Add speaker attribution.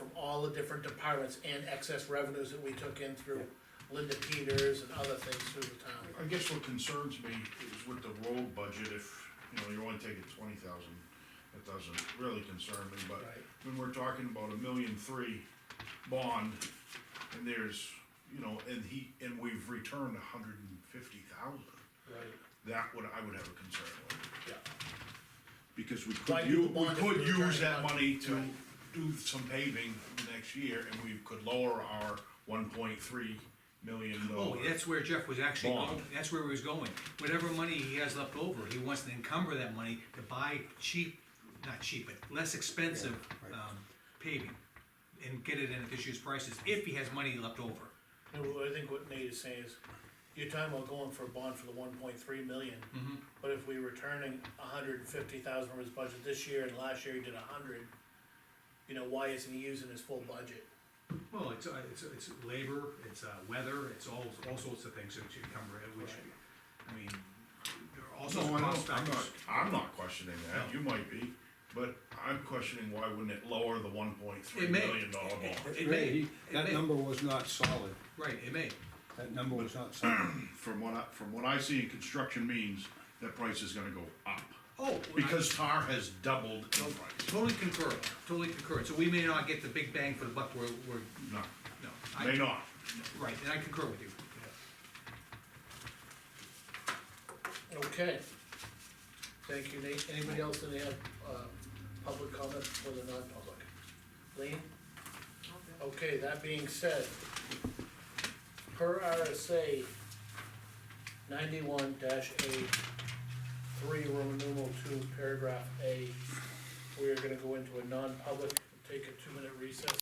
Speaker 1: all the different departments and excess revenues that we took in through Linda Peters and other things through the town.
Speaker 2: I guess what concerns me is with the road budget, if, you know, you're only taking twenty thousand, it doesn't really concern me, but
Speaker 1: Right.
Speaker 2: when we're talking about a million three bond, and there's, you know, and he, and we've returned a hundred and fifty thousand,
Speaker 1: Right.
Speaker 2: that would, I would have a concern with.
Speaker 1: Yeah,
Speaker 2: Because we
Speaker 1: Why
Speaker 2: could,
Speaker 1: do
Speaker 2: u-
Speaker 1: the
Speaker 2: we
Speaker 1: bond if
Speaker 2: could
Speaker 1: we're
Speaker 2: use
Speaker 1: returning
Speaker 2: that
Speaker 1: money?
Speaker 2: money to
Speaker 1: Right.
Speaker 2: do some paving next year, and we could lower our one point three million
Speaker 3: Oh,
Speaker 2: dollar.
Speaker 3: that's where Jeff was actually
Speaker 2: Bond.
Speaker 3: going, that's where he was going. Whatever money he has left over, he wants to encumber that money to buy cheap, not cheap, but less expensive, um, paving. And get it in at this year's prices, if he has money left over.
Speaker 1: and what I think what Nate is saying is, you're talking about going for a bond for the one point three million. But if we returning a hundred and fifty thousand from his budget this year and last year he did a hundred, you know, why isn't he using his full budget?
Speaker 3: Well, it's, uh, it's, it's labor, it's, uh, weather, it's all, all sorts of things that you encumber, it, which, I mean, there are all
Speaker 2: No,
Speaker 3: sorts
Speaker 2: I
Speaker 3: of cost
Speaker 2: don't, I'm not,
Speaker 3: factors.
Speaker 2: I'm not questioning that, you
Speaker 3: No.
Speaker 2: might be, but I'm questioning why wouldn't it lower the one point three
Speaker 3: It may.
Speaker 2: million dollar bond?
Speaker 3: It may,
Speaker 4: Ray,
Speaker 3: it
Speaker 4: that
Speaker 3: may.
Speaker 4: number was not solid,
Speaker 3: Right, it may.
Speaker 4: that number was not solid.
Speaker 2: From what I, from what I see in construction means, that price is gonna go up,
Speaker 3: Oh.
Speaker 2: because tar has doubled in price.
Speaker 3: Totally concur, totally concur, so we may not get the big bang for the buck we're, we're,
Speaker 2: No,
Speaker 3: no. I-
Speaker 2: may not,
Speaker 3: Right, and I concur with you.
Speaker 1: Okay. Thank you, Nate. Anybody else that have, uh, public comment for the non-public? Lean? Okay, that being said, per RSA ninety-one dash A, three, Roman numeral two, paragraph A, we are gonna go into a non-public, take a two-minute recess.